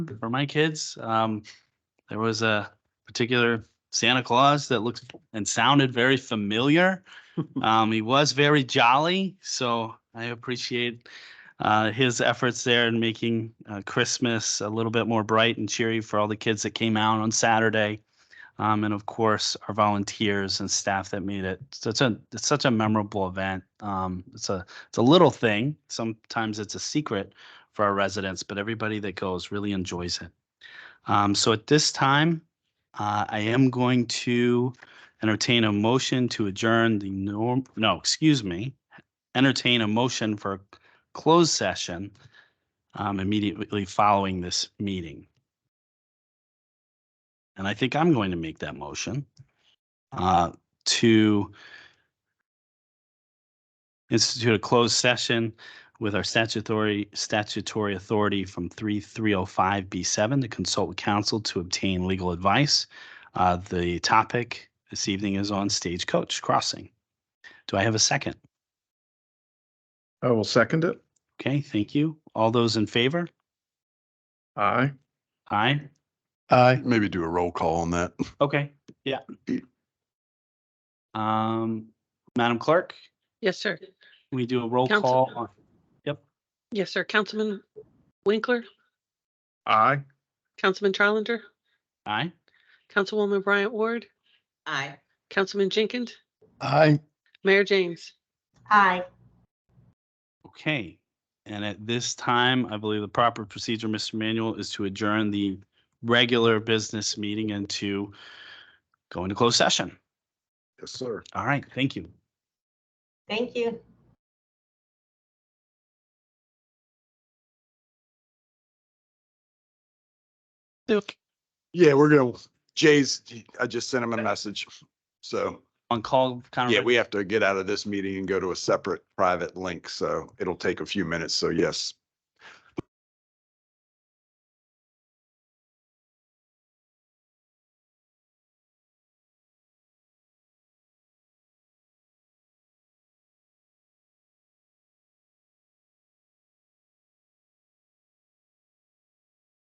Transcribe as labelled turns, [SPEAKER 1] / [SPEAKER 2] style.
[SPEAKER 1] for my kids. Um, there was a particular Santa Claus that looked and sounded very familiar. Um, he was very jolly, so I appreciate uh, his efforts there in making uh, Christmas a little bit more bright and cheery for all the kids that came out on Saturday. Um, and of course, our volunteers and staff that made it such a it's such a memorable event. Um, it's a it's a little thing. Sometimes it's a secret for our residents, but everybody that goes really enjoys it. Um, so at this time, uh, I am going to entertain a motion to adjourn the norm. No, excuse me, entertain a motion for a closed session um, immediately following this meeting. And I think I'm going to make that motion uh, to institute a closed session with our statutory, statutory authority from 3305B7 to consult with counsel to obtain legal advice. Uh, The topic this evening is on Stagecoach Crossing. Do I have a second?
[SPEAKER 2] I will second it.
[SPEAKER 1] Okay, thank you. All those in favor?
[SPEAKER 2] Aye.
[SPEAKER 1] Aye.
[SPEAKER 2] Aye.
[SPEAKER 3] Maybe do a roll call on that.
[SPEAKER 1] Okay, yeah. Um, Madam Clerk,
[SPEAKER 4] Yes, sir.
[SPEAKER 1] we do a roll
[SPEAKER 4] Counsel-
[SPEAKER 1] call. on-
[SPEAKER 4] Yes, sir. Councilman Winkler,
[SPEAKER 2] Aye.
[SPEAKER 4] Councilman Trolinger,
[SPEAKER 1] Aye.
[SPEAKER 4] Councilwoman Bryant Ward. Aye. Councilman Jenkins,
[SPEAKER 2] Aye.
[SPEAKER 4] Mayor James.
[SPEAKER 5] Aye.
[SPEAKER 1] Okay, and at this time, I believe the proper procedure, Mr. Manuel, is to adjourn the regular business meeting and to go into closed session.
[SPEAKER 2] Yes, sir.
[SPEAKER 1] All right, thank you.
[SPEAKER 5] Thank you.
[SPEAKER 3] Yeah, we're gonna, Jay's, I just sent him a message. So,
[SPEAKER 1] On call, kind
[SPEAKER 3] yeah,
[SPEAKER 1] of,
[SPEAKER 3] we have to get out of this meeting and go to a separate private link. So it'll take a few minutes. So yes,